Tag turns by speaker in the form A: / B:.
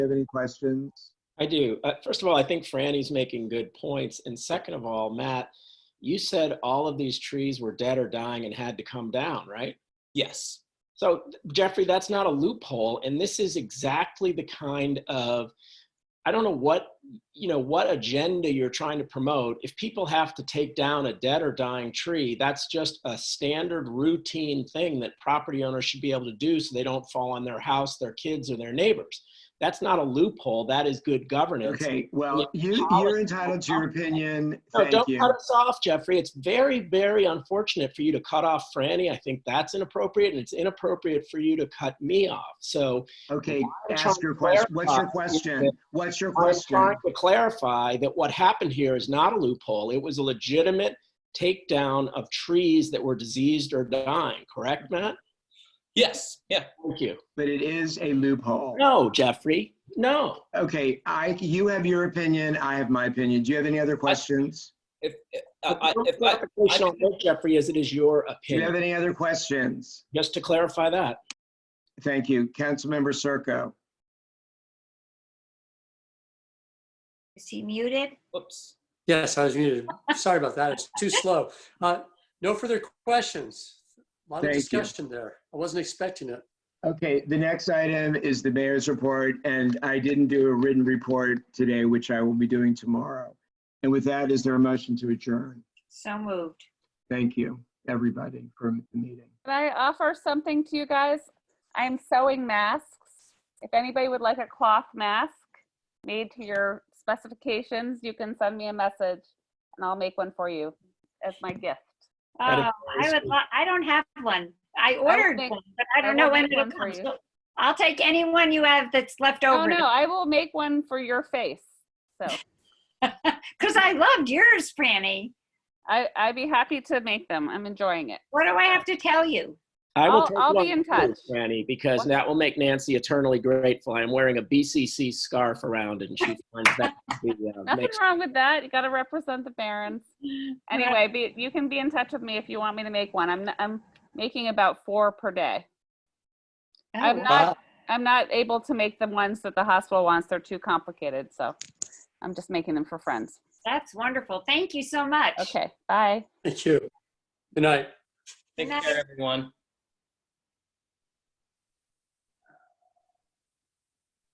A: have any questions?
B: I do. Uh, first of all, I think Franny's making good points. And second of all, Matt, you said all of these trees were dead or dying and had to come down, right?
C: Yes.
B: So Jeffrey, that's not a loophole. And this is exactly the kind of, I don't know what, you know, what agenda you're trying to promote. If people have to take down a dead or dying tree, that's just a standard routine thing that property owners should be able to do so they don't fall on their house, their kids, or their neighbors. That's not a loophole. That is good governance.
A: Okay, well, you, you're entitled to your opinion.
B: No,
A: Thank
B: don't
A: you.
B: cut us off, Jeffrey. It's very, very unfortunate for you to cut off Franny. I think that's inappropriate, and it's inappropriate for you to cut me off. So
A: Okay,
B: I'm trying
A: ask your question.
B: to
A: What's your
B: clarify.
A: question? What's your
B: I was
A: question?
B: trying to clarify that what happened here is not a loophole. It was a legitimate takedown of trees that were diseased or dying, correct, Matt?
C: Yes. Yeah.
B: Thank you.
A: But it is a loophole.
B: No, Jeffrey, no.
A: Okay, I, you have your opinion, I have my opinion. Do you have any other questions?
C: If, if, uh, I, I- if I,
B: Clarification on that, Jeffrey, as it is your
A: Do you have
B: opinion,
A: any other questions?
B: just to clarify that.
A: Thank you. Councilmember Circo.
D: Is he muted?
C: whoops.
E: Yes, I was muted. Sorry about that. It's too slow. Uh, No further questions. A Lot of
A: Thank you.
E: discussion there. I wasn't expecting it.
A: Okay, the next item is the mayor's report, and I didn't do a written report today, which I will be doing tomorrow. And with that, is there a motion to adjourn?
D: So moved.
A: Thank you, everybody, for the meeting.
F: Can I offer something to you guys? I'm sewing masks. If anybody would like a cloth mask made to your specifications, you can send me a message and I'll make one for you as my gift.
D: Oh,
B: That is
D: I
B: very
D: would,
B: sweet.
D: lo- I don't have one. I ordered
F: make-
D: one, but I
F: I
D: don't
F: will
D: know when
F: make
D: it'll
F: one for
D: come.
F: you.
D: So I'll take any one you have that's left
F: Oh
D: over.
F: no, I will make one for your face. So
D: Because I loved yours, Franny.
F: I, I'd be happy to make them. I'm enjoying it.
D: What do I have to tell you?
B: I will
F: I'll-
B: take
F: I'll
B: one
F: be in
B: too,
F: touch.
B: Franny, because
F: What?
B: that will make Nancy eternally grateful. I'm wearing a BCC scarf around, and she finds that to be, uh,
F: Nothing
B: makes
F: wrong with that. You got to represent the Barons. Anyway, be, you can be in touch with me if you want me to make one. I'm, I'm making about four per day.
D: Oh,
F: I'm
D: wow.
F: not, I'm not able to make the ones that the hospital wants. They're too complicated, so I'm just making them for friends.
D: That's wonderful. Thank you so much.
F: Okay, bye.
E: Thank you. Good night.
C: Take
D: Nice.
C: care, everyone.